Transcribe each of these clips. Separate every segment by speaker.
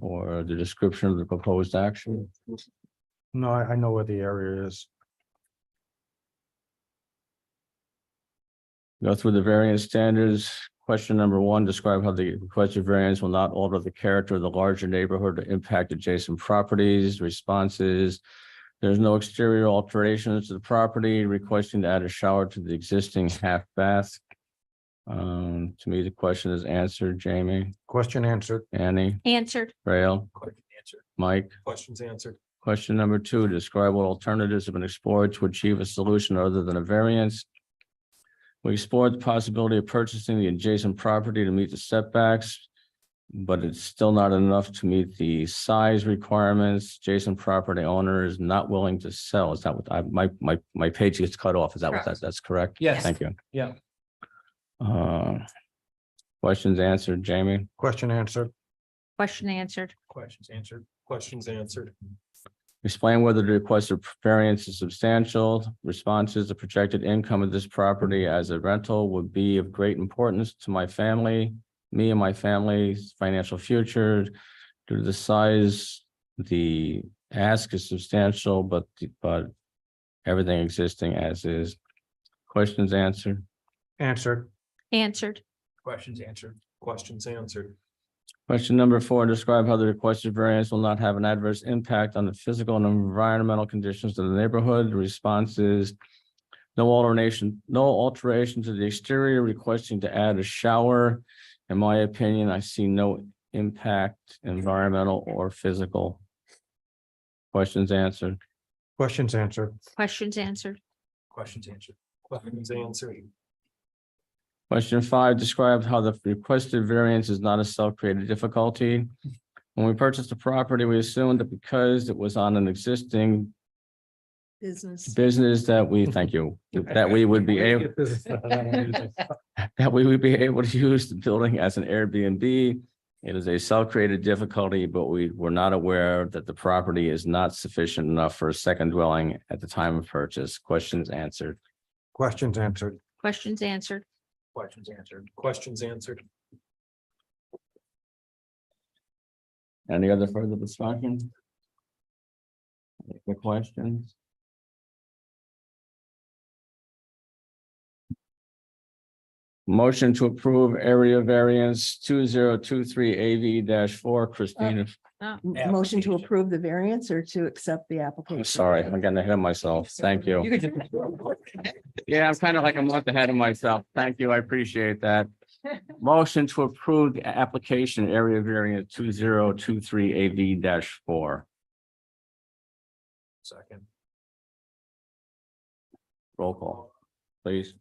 Speaker 1: or the description of the proposed action?
Speaker 2: No, I, I know where the area is.
Speaker 1: Go through the variance standards. Question number one, describe how the requested variance will not alter the character of the larger neighborhood or impact adjacent properties, responses. There's no exterior alterations to the property, requesting to add a shower to the existing half bath. Um, to me, the question is answered, Jamie,
Speaker 2: Question answered.
Speaker 1: Annie,
Speaker 3: Answered,
Speaker 1: Rail,
Speaker 4: Question answered.
Speaker 1: Mike.
Speaker 4: Questions answered.
Speaker 1: Question number two, describe what alternatives have been explored to achieve a solution other than a variance. We explored the possibility of purchasing the adjacent property to meet the setbacks. But it's still not enough to meet the size requirements. Adjacent property owner is not willing to sell. Is that what I, my, my, my page gets cut off? Is that what that,
Speaker 4: Correct.
Speaker 1: that's correct?
Speaker 4: Yes.
Speaker 1: Thank you.
Speaker 4: Yeah.
Speaker 1: Uh, Questions answered, Jamie?
Speaker 2: Question answered.
Speaker 3: question answered,
Speaker 4: Questions answered. Questions answered.
Speaker 1: Explain whether the requested variance is substantial. Responses, the projected income of this property as a rental would be of great importance to my family, me and my family's financial future. Due to the size, the ask is substantial, but, but everything existing as is. Questions answered.
Speaker 2: Answered.
Speaker 3: answered,
Speaker 4: Questions answered. Questions answered.
Speaker 1: Question number four, describe how the requested variance will not have an adverse impact on the physical and environmental conditions of the neighborhood. The Response is no alteration, no alteration to the exterior requesting to add a shower. In my opinion, I see no impact, environmental or physical. Questions answered.
Speaker 2: Questions answered.
Speaker 3: questions answered,
Speaker 4: Questions answered. Questions answered.
Speaker 1: Question five, describe how the requested variance is not a self-created difficulty. When we purchased the property, we assumed that because it was on an existing
Speaker 5: business.
Speaker 1: business that we, thank you, that we would be able, that we would be able to use the building as an Airbnb. It is a self-created difficulty, but we were not aware that the property is not sufficient enough for a second dwelling at the time of purchase. Questions answered.
Speaker 2: Questions answered.
Speaker 3: questions answered,
Speaker 4: Questions answered. Questions answered.
Speaker 1: Any other further discussion? Any other questions? Motion to approve area variance two zero two three AV four Christina.
Speaker 5: M- Motion to
Speaker 4: Application.
Speaker 5: approve the variance or to accept the application?
Speaker 1: I'm sorry, I'm getting ahead of myself. Thank you. Yeah, I'm kind of like a month ahead of myself. Thank you. I appreciate that. Motion to approve the application area variant two zero two three AV four.
Speaker 4: Second.
Speaker 1: Roll call, please.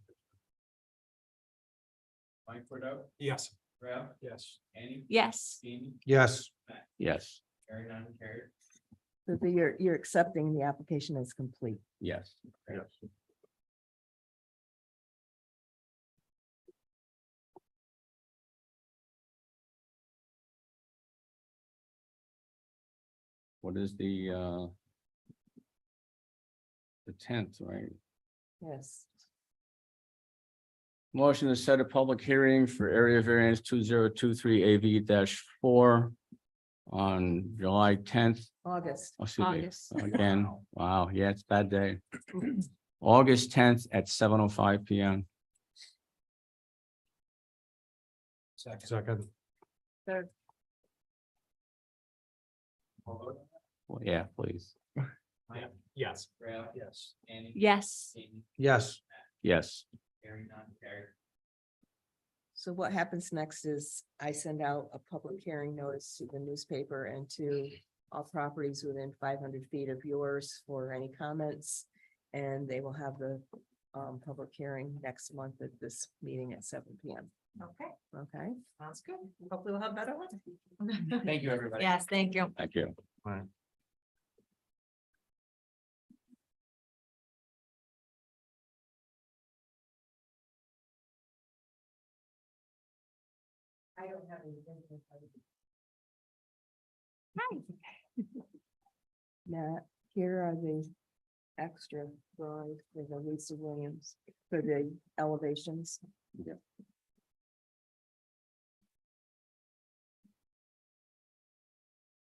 Speaker 6: Mike Fredot,
Speaker 4: Yes.
Speaker 6: Ralph,
Speaker 4: Yes.
Speaker 6: Annie,
Speaker 3: yes,
Speaker 6: Jamie,
Speaker 2: Yes.
Speaker 1: Yes,
Speaker 6: Karen, non carried.
Speaker 5: So the- You're, you're accepting the application as complete.
Speaker 1: yes. What is the uh? The tenth, right?
Speaker 5: Yes.
Speaker 1: Motion to set a public hearing for area variance two zero two three AV four on July tenth. oh,
Speaker 5: August.
Speaker 3: August,
Speaker 1: Again, wow, yeah, it's a bad day. August tenth at seven oh five P M.
Speaker 4: Second.
Speaker 2: Second.
Speaker 1: Yeah, please.
Speaker 4: Yes.
Speaker 6: Ralph,
Speaker 4: Yes.
Speaker 6: Annie.
Speaker 3: yes,
Speaker 6: Jamie,
Speaker 2: Yes.
Speaker 1: Yes,
Speaker 6: Karen, non carried.
Speaker 5: So what happens next is I send out a public hearing notice to the newspaper and to all properties within five hundred feet of yours for any comments. And they will have the um public hearing next month at this meeting at seven P M.
Speaker 7: Okay,
Speaker 5: Okay?
Speaker 7: sounds good. Hopefully we'll have better ones.
Speaker 6: Thank you, everybody.
Speaker 7: Yes, thank you.
Speaker 1: thank you.
Speaker 2: Right.
Speaker 5: I don't have anything.
Speaker 3: Hi.
Speaker 5: Matt, here are the extra drawings for the Lisa Williams for the elevations.